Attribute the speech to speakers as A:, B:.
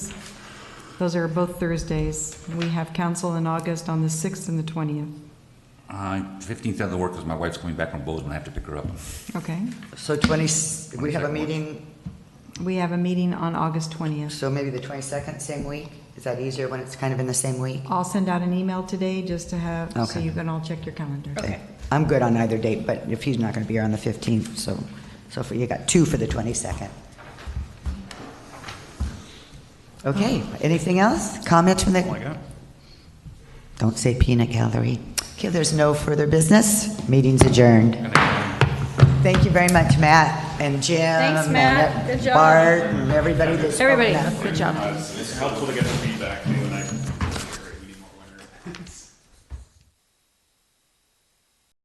A: Those are both Thursdays. We have council in August on the 6th and the 20th.
B: Uh, Fifteenth doesn't work because my wife's coming back from Bozeman. I have to pick her up.
A: Okay.
C: So 20, we
B: 22nd
C: have a
B: works.
C: meeting,
A: We have a meeting on August 20th.
C: so maybe the 22nd, same week? Is that easier when it's kind of in the same week?
A: I'll send out an email today just to have, so
C: Okay.
A: you can all check your calendar.
C: Okay. I'm good on either date, but if he's not going to be here on the 15th, so, so for- you got two for the 22nd. Okay, anything else? Comments from the? Don't say peanut gallery. Okay, there's no further business. Meeting's adjourned. Thank you very much, Matt and Jim.
D: Thanks,
C: and
D: Matt. Good job.
C: Bart and everybody that's. spoken
D: Everybody,
C: up.
D: good job.
E: It's helpful to get the feedback.